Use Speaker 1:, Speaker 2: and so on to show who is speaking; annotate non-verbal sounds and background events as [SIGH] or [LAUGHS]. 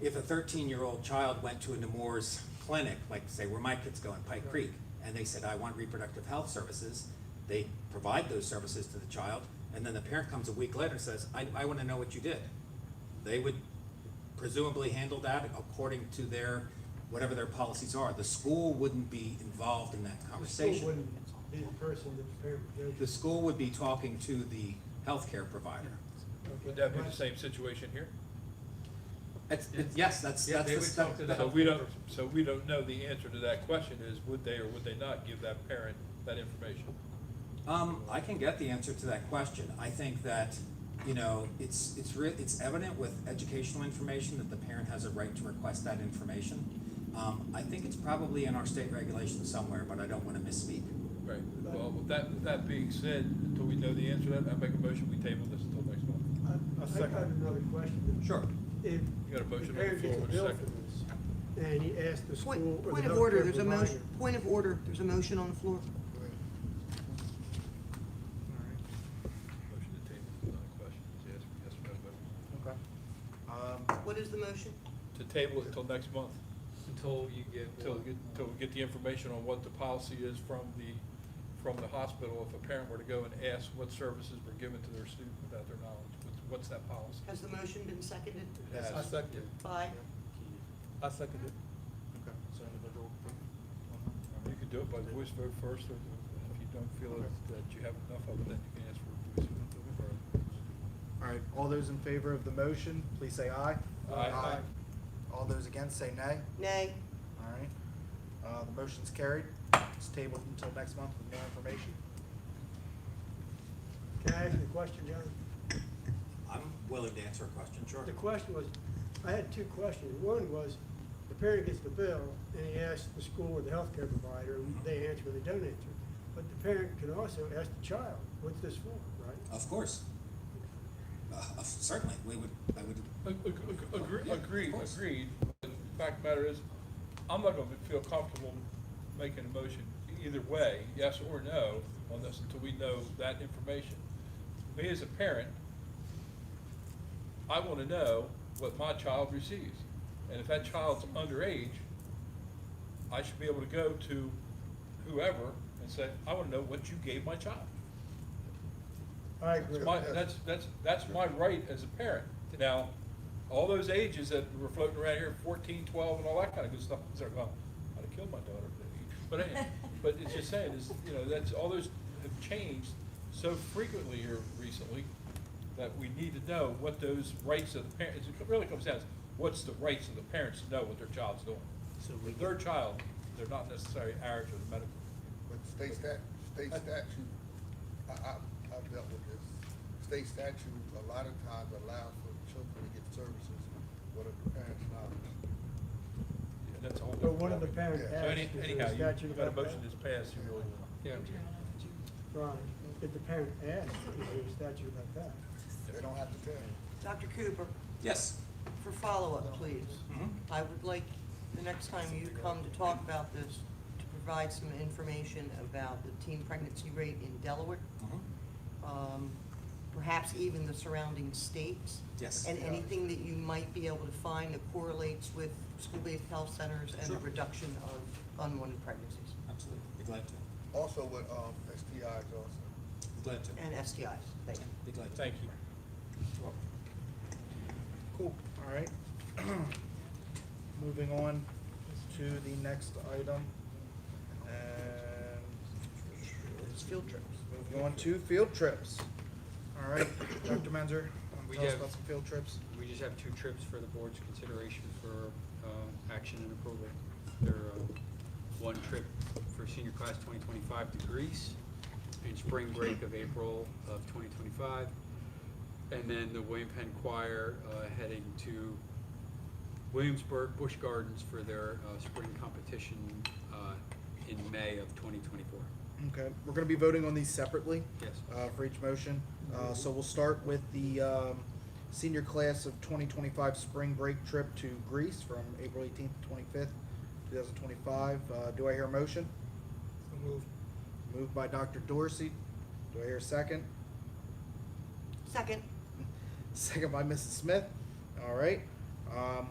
Speaker 1: if a thirteen-year-old child went to a Nemours clinic, like say where my kids go in Pike Creek, and they said, I want reproductive health services, they provide those services to the child, and then the parent comes a week later and says, I, I wanna know what you did. They would presumably handle that according to their, whatever their policies are. The school wouldn't be involved in that
Speaker 2: The school
Speaker 1: conversation.
Speaker 2: wouldn't be the person that prepared the
Speaker 1: The
Speaker 2: judgment.
Speaker 1: school would be talking to the healthcare provider.
Speaker 2: Okay.
Speaker 3: Would that be the same situation here?
Speaker 1: It's, it- yes, that's,
Speaker 4: Yeah,
Speaker 1: that's.
Speaker 4: they
Speaker 1: the
Speaker 4: would
Speaker 1: step-
Speaker 4: talk to the
Speaker 3: So
Speaker 4: health
Speaker 3: we don't, so we don't know the answer to that question is would they or would they not give that parent that information?
Speaker 1: Um, I can get the answer to that question. I think that, you know, it's, it's re- it's evident with educational information that the parent has a right to request that information. Um, I think it's probably in our state regulation somewhere, but I don't wanna misspeak.
Speaker 3: Right, well, with that, with that being said, until we know the answer to that, I make a motion, we table this until next month.
Speaker 2: I- I think I have another question.
Speaker 1: Sure.
Speaker 2: If
Speaker 3: got a motion
Speaker 2: the
Speaker 3: on the
Speaker 2: parent gets a
Speaker 3: floor,
Speaker 2: bill
Speaker 3: a
Speaker 2: for
Speaker 3: second.
Speaker 2: this, and he asks the school
Speaker 5: Point,
Speaker 2: or the
Speaker 5: point of order,
Speaker 2: healthcare
Speaker 5: there's a motion,
Speaker 2: provider.
Speaker 5: point of order, there's a motion on the floor.
Speaker 3: Motion to table, is not a question, it's yes, yes or no vote.
Speaker 4: Okay. Um,
Speaker 5: What is the motion?
Speaker 3: To table it until next month,
Speaker 4: until you get.
Speaker 3: until, we get- until we get the information on what the policy is from the, from the hospital, if a parent were to go and ask what services were given to their student without their knowledge, what's, what's that policy?
Speaker 5: Has the motion been seconded
Speaker 3: Yes.
Speaker 4: I second it.
Speaker 5: by,
Speaker 4: I second it. Okay. So individual.
Speaker 3: You could do it by voice vote first, or if you don't feel that- that you have enough of it, then you can ask for a voice vote.
Speaker 6: All right, all those in favor of the motion, please say aye.
Speaker 3: Aye.
Speaker 6: All those against, say nay.
Speaker 5: nay?
Speaker 6: All right, uh, the motion's carried. It's tabled until next month with more information.
Speaker 2: Can I ask you a question, John?
Speaker 1: I'm willing to answer a question, sure.
Speaker 2: The question was, I had two questions. One was, the parent gets the bill, and he asks the school or the healthcare provider, and they answer or they don't answer. But the parent can also ask the child, what's this for, right?
Speaker 1: Of course. Uh, certainly, we would, I would,
Speaker 3: Ag- ag- ag- agree-
Speaker 1: Yeah, of
Speaker 3: Agreed,
Speaker 1: course.
Speaker 3: agreed. The fact of the matter is, I'm not gonna feel comfortable making a motion either way, yes or no, on this until we know that information. Me as a parent, I wanna know what my child receives. And if that child's underage, I should be able to go to whoever and say, I wanna know what you gave my child.
Speaker 2: I agree.
Speaker 3: That's my, that's, that's, that's my right as a parent. Now, all those ages that were floating around here, fourteen, twelve, and all that kind of good stuff, it's like, well, I'd have killed my daughter. at that age. But anyway, but it's just saying, is, you know, that's, all those have changed so frequently here recently that we need to know what those rights of the parents, it really comes down to, what's the rights of the parents to know what their child's doing?
Speaker 7: So we
Speaker 3: With their child, they're not necessarily ours or the medical.
Speaker 7: But state stat, state statute, I, I, I've dealt with this. State statute, a lot of times allows for children to get services without the parents' knowledge.
Speaker 3: And that's all.
Speaker 2: But one of the parents
Speaker 3: So
Speaker 2: asked.
Speaker 3: any-
Speaker 2: is there a
Speaker 3: anyhow, you-
Speaker 2: statute
Speaker 3: you got a
Speaker 2: about
Speaker 3: motion
Speaker 2: that?
Speaker 3: that's passed, you really can't.
Speaker 2: Right. Did the parent ask, is there a statute about that?
Speaker 7: They don't have to tell you.
Speaker 5: Dr. Cooper,
Speaker 1: yes.
Speaker 5: for follow-up, please.
Speaker 1: Mhm.
Speaker 2: Mm-hmm.
Speaker 5: I would like, the next time you come to talk about this, to provide some information about the teen pregnancy rate in Delaware,
Speaker 1: Mhm.
Speaker 5: um, perhaps even the surrounding states.
Speaker 1: Yes.
Speaker 5: And anything that you might be able to find that correlates with school-based health centers and the
Speaker 1: Sure.
Speaker 5: reduction of unwanted pregnancies
Speaker 1: Absolutely, be glad to,
Speaker 7: Also with, um, STIs also.
Speaker 1: be glad to,
Speaker 5: and STIs. Thank you.
Speaker 1: be glad to.
Speaker 3: Thank you.
Speaker 6: Cool, all right. [CLEARS THROAT] Moving on to the next item. And
Speaker 5: It's field trips.
Speaker 6: moving on to field trips. All right, Dr. Menzer, wanna
Speaker 4: We
Speaker 6: tell us
Speaker 4: have-
Speaker 6: about some field trips?
Speaker 4: We just have two trips for the board's consideration for uh, action and approval. There are one trip for senior class 2025 to Greece and spring break of April of 2025. And then the William Penn Choir uh, heading to Williamsburg Busch Gardens for their uh, spring competition uh, in May of 2024.
Speaker 6: Okay, we're gonna be voting on these separately.
Speaker 4: Yes.
Speaker 6: Uh, for each motion. Uh, so we'll start with the, um, senior class of twenty twenty-five spring break trip to Greece from April eighteenth, twenty-fifth, two thousand twenty-five. Uh, do I hear a motion? Moved by Dr. Dorsey. Do I hear a second? [LAUGHS]
Speaker 5: Second.
Speaker 6: Second by Mrs. Smith. All right. Um,